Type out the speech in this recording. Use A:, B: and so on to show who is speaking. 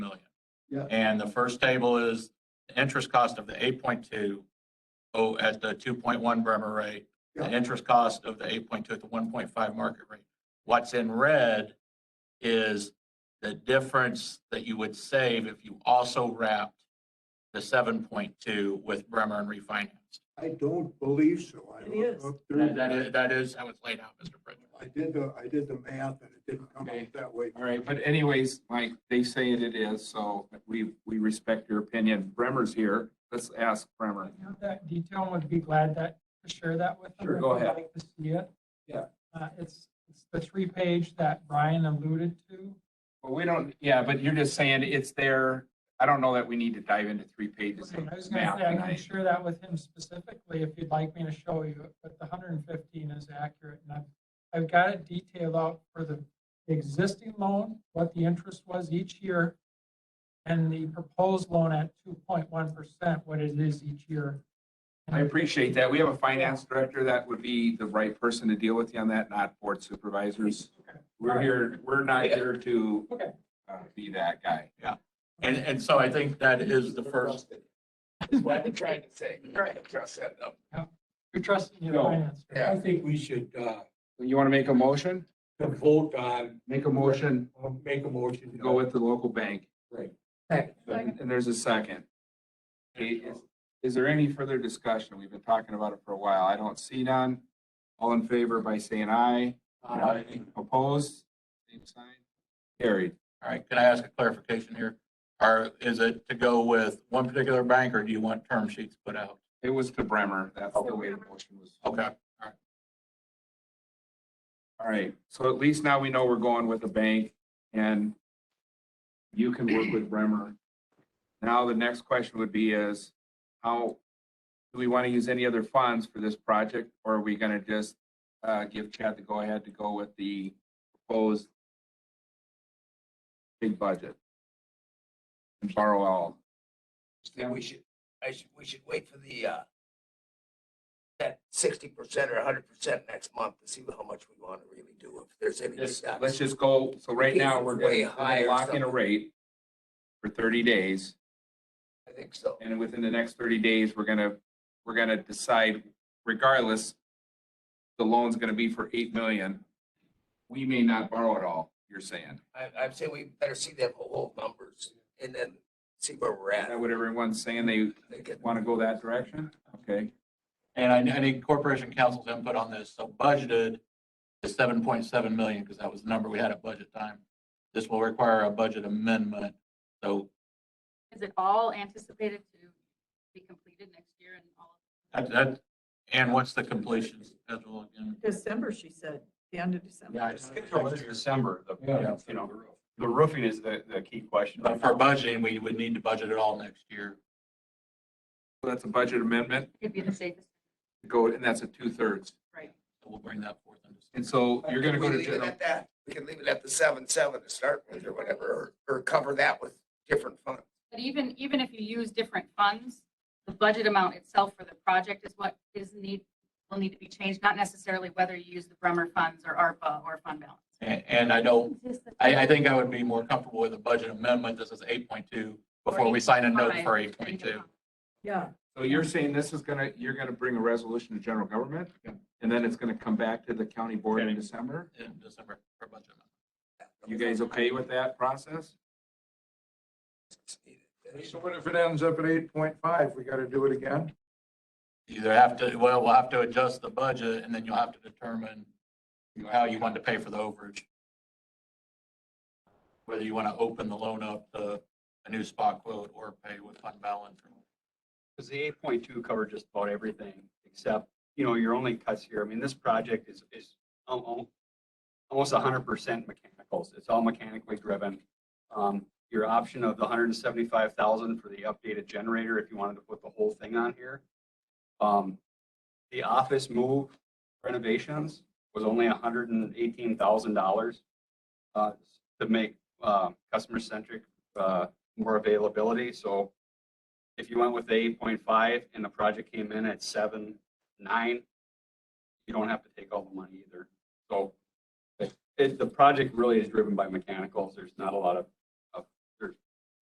A: Yeah.
B: And the first table is the interest cost of the eight point two oh, at the two point one Bremer rate, the
A: Yeah.
B: interest cost of the eight point two at the one point five market rate. What's in red is the difference that you would save if you also wrapped the seven point two with Bremer and refinanced.
A: I don't believe so. I
C: It
A: looked
C: is.
A: up through
B: That that is, that is how it's laid out, Mr. Pritchard.
A: I did the, I did the math and it didn't come
D: Okay.
A: out that way.
D: All right, but anyways, Mike, they say it it is, so we, we respect your opinion. Bremer's here. Let's ask Bremer.
E: I have that detail and would be glad that, to share that with them.
D: Sure,
E: if
D: go
E: you'd
D: ahead.
E: like to see it.
D: Yeah.
E: Uh, it's, it's the three page that Brian alluded to.
D: Well, we don't, yeah, but you're just saying it's there. I don't know that we need to dive into three
E: I
D: pages
E: was
D: of
E: gonna
D: math
E: say, I can
D: tonight.
E: share that with him specifically if you'd like me to show you, it, but the hundred and fifteen is accurate. And I've, I've got it detailed out for the existing loan, what the interest was each year, and the proposed loan at two point one percent, what it is each year.
D: I appreciate that. We have a finance director that would be the right person to deal with you on that, not board supervisors. We're here, we're not here to
E: Okay.
D: uh, be that guy.
B: And, and so I think that is the first,
D: What I'm trying to say. Right. Trust that up.
E: You're trusting your
D: No.
E: finance.
D: Yeah.
F: I think we should, uh,
D: You want to make a motion?
F: vote on,
D: Make a motion,
F: uh, make a motion. to
D: go with the local bank.
F: Right.
D: And and there's a second. Okay, Is is there any further discussion? We've been talking about it for a while. I don't see none. All in favor by saying aye.
B: Aye.
A: uh,
D: Opposed? Same sign. Carried.
B: all right, can I ask a clarification here? Or is it to go with one particular bank or do you want term sheets put out?
D: It was to Bremer. That's the way the motion was.
B: Okay,
D: All right. So at least now we know we're going with the bank and you can work with Bremer. Now, the next question would be is, how, do we want to use any other funds for this project? Or are we going to just uh, give Chad the go-ahead to go with the proposed big budget? And borrow all?
G: Then we should, I should, we should wait for the, uh, that sixty percent or hundred percent next month to see how much we want to really do, if there's any.
D: Just-
G: gaps.
D: Let's just go, so right now, we're
G: Way
D: going
G: high
D: to
G: or
D: lock in a
G: something.
D: rate for 30 days.
G: I think so.
D: And within the next thirty days, we're gonna, we're gonna decide regardless, the loan's gonna be for eight million. We may not borrow at all, you're saying.
G: I, I'm saying we better see them whole numbers and then see where we're
D: Is
G: at.
D: that what everyone's saying? They
G: They could-
D: wanna go that direction? Okay,
B: and I, I need Corporation Council's input on this. So budgeted is seven point seven million because that was the number we had at budget time. This will require a budget amendment. So
H: Is it all anticipated to be completed next year and all?
B: that, that, and what's the completion schedule again?
C: December, she said, the end of December.
B: Yeah, I just- Schedule is
D: December,
B: Yeah.
D: you know, the roofing is the, the key question.
B: But for budgeting, we would need to budget it all next year.
D: That's a budget amendment,
H: It'd be the safest,
D: go, and that's a two-thirds.
H: right?
B: So We'll bring that forth. in December.
D: And so you're gonna go
G: We
D: to
G: leave it
D: general,
G: at that. We can leave it at the seven, seven to start with or whatever, or, or cover that with different funds.
H: But even, even if you use different funds, the budget amount itself for the project is what is need, will need to be changed, not necessarily whether you use the Bremer funds or ARPA or fund balance.
B: And, and I don't I, I think I would be more comfortable with a budget amendment. This is eight point two before we sign a note for eight point two.
C: Yeah,
D: so you're saying this is gonna, you're gonna bring a resolution to general government?
B: Yeah.
D: And then it's gonna come back to the county board in
B: County.
D: December?
B: In December for budget. amendment.
D: You guys okay with that process?
A: So what if it ends up at eight point five? We gotta do it again?
B: You Either have to, well, we'll have to adjust the budget and then you'll have to determine you know, how you want to pay for the overage. Whether you want to open the loan up to a new spot quote or pay with fund balance.
I: Because the eight point two covered just about everything, except, you know, your only cuts here, I mean, this project is, is al- al- almost hundred percent mechanicals, it's all mechanically driven. Um, your option of the hundred and seventy-five thousand for the updated generator, if you wanted to put the whole thing on here. Um, the office move renovations was only hundred and eighteen thousand dollars, uh, to make, uh, customer-centric, uh, more availability, so if you went with the eight point five and the project came in at seven, nine, you don't have to take all the money either. So it, the project really is driven by mechanicals. There's not a lot of